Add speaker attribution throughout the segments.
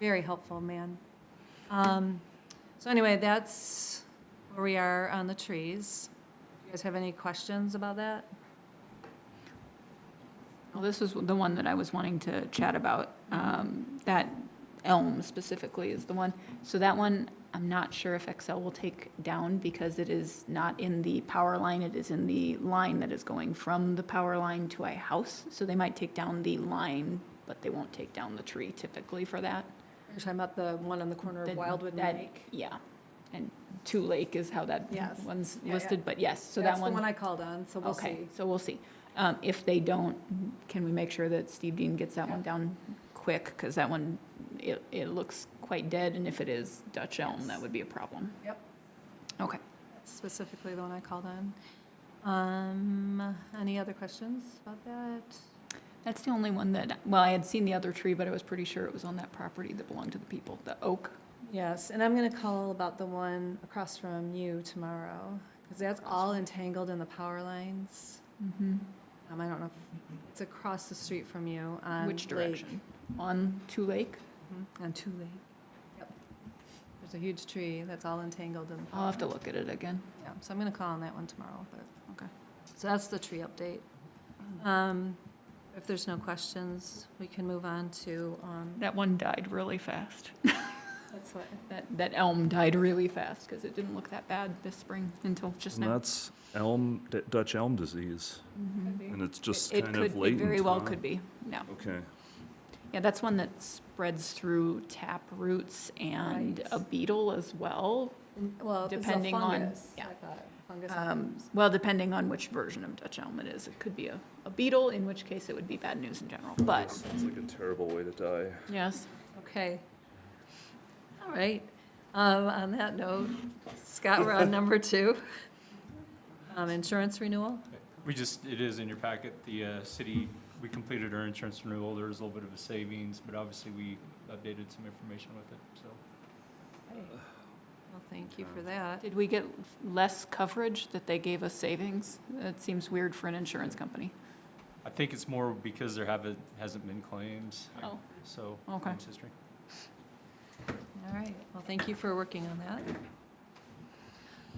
Speaker 1: Very helpful, man. Um, So anyway, that's where we are on the trees. Do you guys have any questions about that?
Speaker 2: Well, this was the one that I was wanting to chat about. Um, That elm specifically is the one. So that one, I'm not sure if Excel will take down because it is not in the power line. It is in the line that is going from the power line to a house. So they might take down the line, but they won't take down the tree typically for that.
Speaker 3: You're talking about the one on the corner
Speaker 2: The-
Speaker 3: of Wildwood and
Speaker 2: that-
Speaker 3: Lake?
Speaker 2: Yeah. And Two Lake is how that
Speaker 3: Yes.
Speaker 2: one's
Speaker 3: Yeah, yeah.
Speaker 2: listed, but yes, so that
Speaker 3: That's the
Speaker 2: one.
Speaker 3: one I called on, so we'll
Speaker 2: Okay,
Speaker 3: see.
Speaker 2: so we'll see. Um, If they don't, can we make sure that Steve Dean gets that one down quick? Because that one, it, it looks quite dead, and if it is Dutch elm, that would be a problem.
Speaker 3: Yep.
Speaker 2: Okay.
Speaker 1: Specifically the one I called on. Um, Any other questions about that?
Speaker 2: That's the only one that, well, I had seen the other tree, but I was pretty sure it was on that property that belonged to the people, the oak.
Speaker 1: Yes, and I'm going to call about the one across from you tomorrow, because that's all entangled in the power lines.
Speaker 2: Mm-hmm.
Speaker 1: Um, I don't know, if- it's across the street from you on
Speaker 2: Which
Speaker 1: Lake.
Speaker 2: direction? On Two Lake?
Speaker 1: Mhm, On Two Lake. Yep. There's a huge tree that's all entangled in the power
Speaker 2: I'll have to
Speaker 1: lines.
Speaker 2: look at it again.
Speaker 1: Yeah, so I'm going to call on that one tomorrow, but.
Speaker 2: Okay. Mm-hmm.
Speaker 1: So that's the tree update. Um, If there's no questions, we can move on to, um,
Speaker 2: That one died really fast.
Speaker 1: that's what,
Speaker 2: That, that elm died really fast, because it didn't look that bad this spring until just
Speaker 4: And
Speaker 2: now.
Speaker 4: that's elm, D- Dutch elm disease,
Speaker 2: Mhm.
Speaker 4: and it's just
Speaker 2: It-
Speaker 4: kind of
Speaker 2: It could,
Speaker 4: late in
Speaker 2: be very well
Speaker 4: time.
Speaker 2: could be, yeah.
Speaker 4: Okay,
Speaker 2: Yeah, that's one that spreads through tap roots and
Speaker 1: Right.
Speaker 2: a beetle as well.
Speaker 1: well,
Speaker 2: it's a Depending on- fungus, I
Speaker 1: I
Speaker 2: yeah.
Speaker 1: thought,
Speaker 2: Um, Well, depending on which version of Dutch elm it is, it could be a, a beetle, in which case it would be bad news in general, but,
Speaker 4: sounds like a terrible way to die.
Speaker 2: yes.
Speaker 1: Okay. All right. Um, On that note, Scott, we're on number two. Um, Insurance renewal?
Speaker 5: We just, it is in your packet, the uh, city, we completed our insurance renewal, there was a little bit of a savings, but obviously we updated some information with it, so.
Speaker 1: Well, thank you for that.
Speaker 2: Did we get less coverage that they gave us savings? That seems weird for an insurance company.
Speaker 5: I think it's more because there haven't, hasn't been claims,
Speaker 2: Oh,
Speaker 5: so.
Speaker 2: Okay.
Speaker 5: claims history.
Speaker 1: All right. Well, thank you for working on that.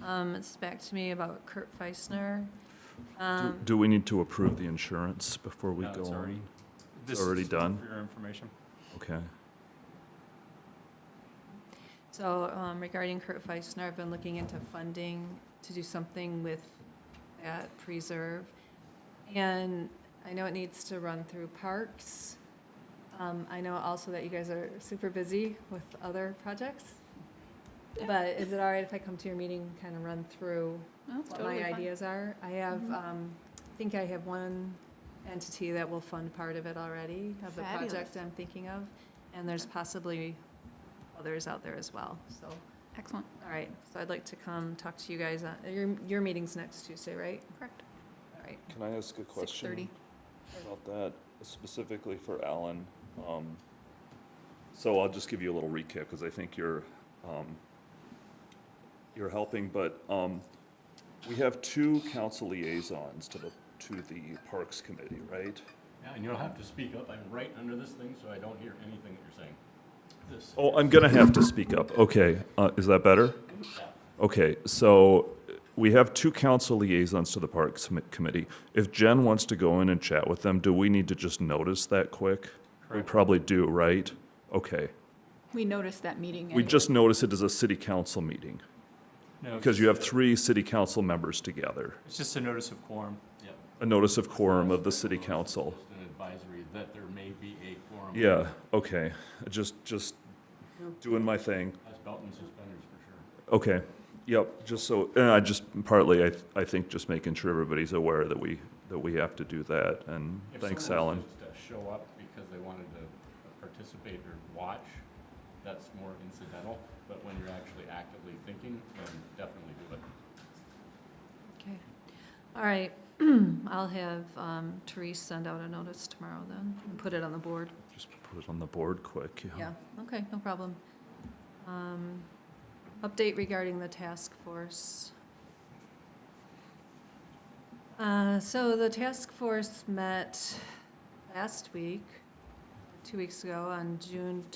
Speaker 1: Um, It's back to me about Kurt Feisner. Um,
Speaker 4: Do we need to approve the insurance before we
Speaker 5: No,
Speaker 4: go
Speaker 5: it's already-
Speaker 4: on?
Speaker 5: This is
Speaker 4: Already
Speaker 5: just
Speaker 4: done?
Speaker 5: For your information.
Speaker 4: Okay,
Speaker 1: So um, regarding Kurt Feisner, I've been looking into funding to do something with that preserve. And I know it needs to run through parks. Um, I know also that you guys are super busy with other projects. But is it all right if I come to your meeting, and kind of run through
Speaker 2: that's
Speaker 1: what
Speaker 2: totally
Speaker 1: my
Speaker 2: fine.
Speaker 1: ideas are? I have,
Speaker 2: Mhm.
Speaker 1: um, I think I have one entity that will fund part of it already, of the project
Speaker 2: Fabulous.
Speaker 1: I'm thinking of. And there's possibly others out there as well, so.
Speaker 2: Excellent,
Speaker 1: All right, so I'd like to come talk to you guys, on- your, your meeting's next Tuesday, right?
Speaker 2: correct.
Speaker 1: All right,
Speaker 4: can I ask a
Speaker 2: Six thirty.
Speaker 4: About that, specifically for Alan, um, so I'll just give you a little recap, because I think you're, um, you're helping, but, um, we have two council liaisons to the, to the Parks Committee, right?
Speaker 6: Yeah, and you'll have to speak up. I'm right under this thing, so I don't hear anything that you're saying. This.
Speaker 4: Oh, I'm gonna have to speak up, okay, uh, is that better? Okay, so, we have two council liaisons to the Parks Commi- Committee. If Jen wants to go in and chat with them, do we need to just notice that quick? We
Speaker 5: Correct.
Speaker 4: probably do, right? Okay.
Speaker 2: We noticed that meeting.
Speaker 4: We
Speaker 2: anyway.
Speaker 4: just notice it as a city council meeting,
Speaker 5: No, it's
Speaker 4: because you have
Speaker 5: just a-
Speaker 4: three city council members together.
Speaker 5: It's just a notice of quorum.
Speaker 6: Yep.
Speaker 4: A notice of quorum of the city council.
Speaker 6: Just an advisory that there may be a quorum.
Speaker 4: Yeah, okay, just, just doing my thing.
Speaker 6: That's belt and suspenders for sure.
Speaker 4: Okay, yep, just so, and I just, partly, I, I think just making sure everybody's aware that we, that we have to do that, and
Speaker 6: If
Speaker 4: thanks,
Speaker 6: someone
Speaker 4: Alan.
Speaker 6: was to Show up because they wanted to participate or watch, that's more incidental, but when you're actually actively thinking, then definitely do it.
Speaker 1: okay. All right, I'll have um, Therese send out a notice tomorrow then, and put it on the board.
Speaker 4: Just put it on the board quick, yeah.
Speaker 1: Yeah, okay, no problem. Um, Update regarding the task force. Uh, So the task force met last week, two weeks ago, on June